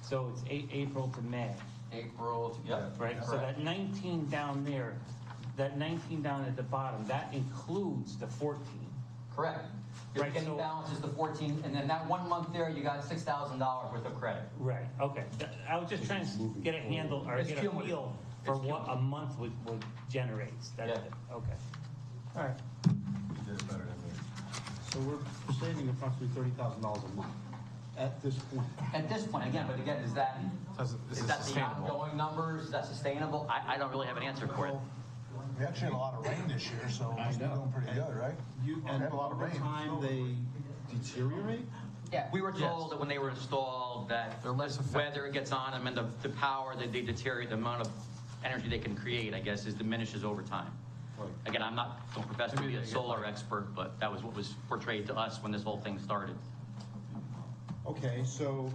So it's A- April to May, April, yeah. right? So that 19 down there, that 19 down at the bottom, that includes the 14. Correct. Your Right, beginning so- balance is the 14, and then that one month there, you got $6,000 worth of credit. Right, okay. Th- I was just trying to get a handle or It's get a cumulative. feel for It's what a month would, would generates. That's Yeah. it, okay. All right. You did it better than me. So we're saving approximately thirty thousand dollars a month at this point. At this point, again, but again, is that, Doesn't- is is it that the sustainable? ongoing numbers? Is that sustainable? I, I don't really have an answer for it. We actually had a lot of rain this year, so I we're know. doing pretty good, right? You, We and had a lot of over rain. time, they deteriorate? Yeah, we were Yes. told that when they were installed, that They're less effective. weather gets on them and the, the power that they deteriorate, the amount of energy they can create, I guess, is diminishes over time. Right. Again, I'm not, don't profess to Maybe be a they get solar expert, but that was what was portrayed to us when this whole thing started. Okay, so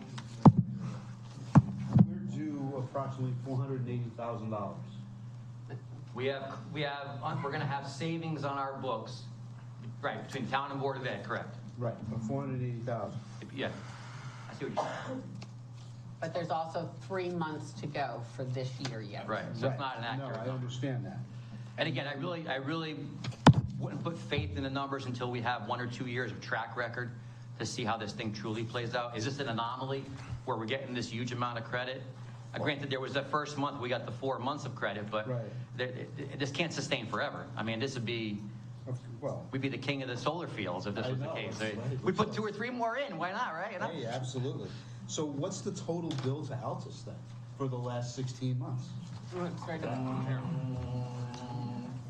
we're due approximately four hundred and eighty thousand dollars. We have, we have, we're gonna have savings on our books, right, between town and Board of Ed, correct? Right, but four hundred and eighty thousand. Yeah, I see what you're saying, But there's also three months to go for this year yet. right, so it's not an accurate No, I number. understand that. And again, I really, I really wouldn't put faith in the numbers until we have one or two years of track record to see how this thing truly plays out. Is this an anomaly where we're getting this huge amount of credit? Uh, Granted, there was that first month, we got the four months of credit, but Right. th- th- this can't sustain forever. I mean, this would be, Of- Well, we'd be the king of the solar fields if this I was the know, case. it's right. We put two or three more in, why not, right? You know? hey, absolutely. So what's the total bill to Altus then for the last sixteen months? Oh,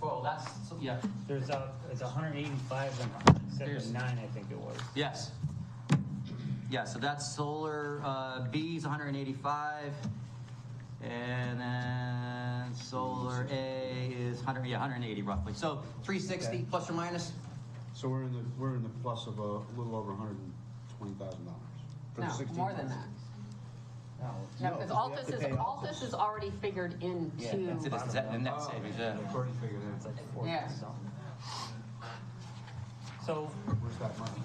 Well, that's, yeah, There's a, it's 185 and There's- 79, I think it was. Yes. Yeah, so that's solar, uh, B's hundred and eighty-five, and then solar A is hundred, yeah, hundred and eighty roughly. So three sixty, Okay. plus or minus? So we're in the, we're in the plus of a little over hundred and twenty thousand dollars. for the No, 16 more than months. that. No, No, because 'cause we have Altus to is, pay Altus. Altus is already figured That's it, into, that's that- the net Oh, savings, yeah. I've already figured it It's out. like 40 Yeah. something. So Where's that money?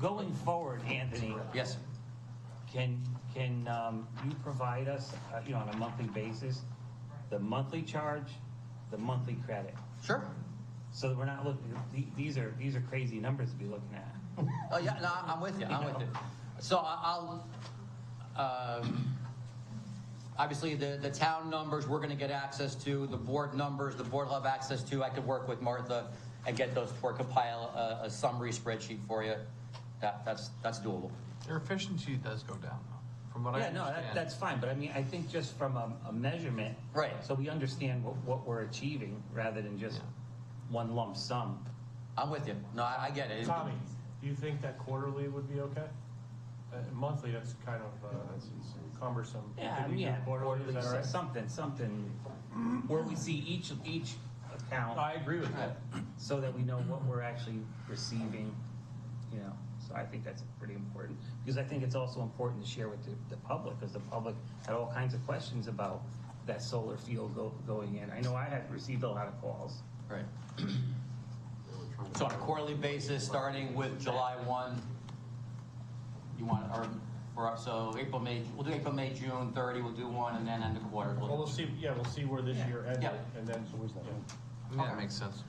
going forward, Anthony, Yes, Can, can um, you provide us, uh, you know, on a monthly basis, the monthly charge, the monthly credit? sure. So that we're not looking, the- these are, these are crazy numbers to be looking at. Oh, yeah, no, I'm- I'm with you, I'm with you. So I- I'll, um, obviously, the, the town numbers, we're gonna get access to, the board numbers, the board will have access to. I could work with Martha and get those, or compile a, a summary spreadsheet for you. That, that's, that's doable. Their efficiency does go down, though, from what I Yeah, no, understand. that, that's fine, but I mean, I think just from a, a measurement. Right. So we understand what, what we're achieving rather than just Yeah. one lump sum. I'm with you. No, I, I get it. Tommy, do you think that quarterly would be okay? Uh, Monthly, that's kind of uh, cumbersome. Yeah, I Could we mean, do yeah, Quarterly, is that all so- right? something, something, where we see each, each account I agree with that. so that we know what we're actually receiving, you know? So I think that's pretty important, because I think it's also important to share with the, the public, because the public had all kinds of questions about that solar field go, going in. I know I had received a lot of calls. Right. So on a quarterly basis, starting with July one, you want, or, we're up, so April, May, we'll do April, May, June, thirty, we'll do one, and then end of quarter. Well, we'll see, yeah, we'll see where this Yeah. year ended, Yeah. and then. Yeah, that makes sense.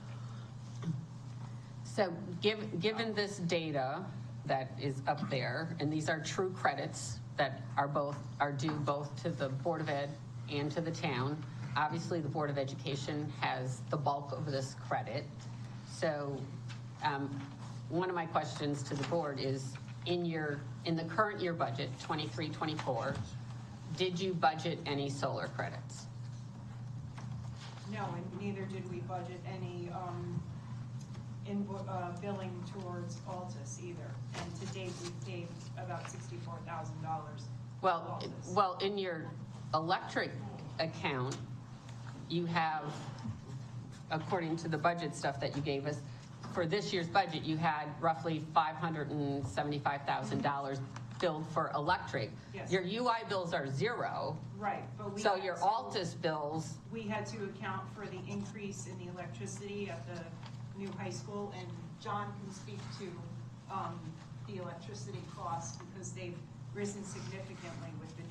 so given, given this data that is up there, and these are true credits that are both, are due both to the Board of Ed and to the town. Obviously, the Board of Education has the bulk of this credit. So um, one of my questions to the board is, in your, in the current year budget, 23, 24, did you budget any solar credits? No, and neither did we budget any, um, invo- uh, billing towards Altus either. And to date, we've paid about sixty-four thousand dollars. Well, well, in your electric account, you have, according to the budget stuff that you gave us, for this year's budget, you had roughly five hundred and seventy-five thousand dollars billed for electric. Yes. Your UI bills are zero, Right, but we. so had your to- Altus bills, We had to account for the increase in the electricity at the new high school, and John can speak to, um, the electricity costs because they've risen significantly with the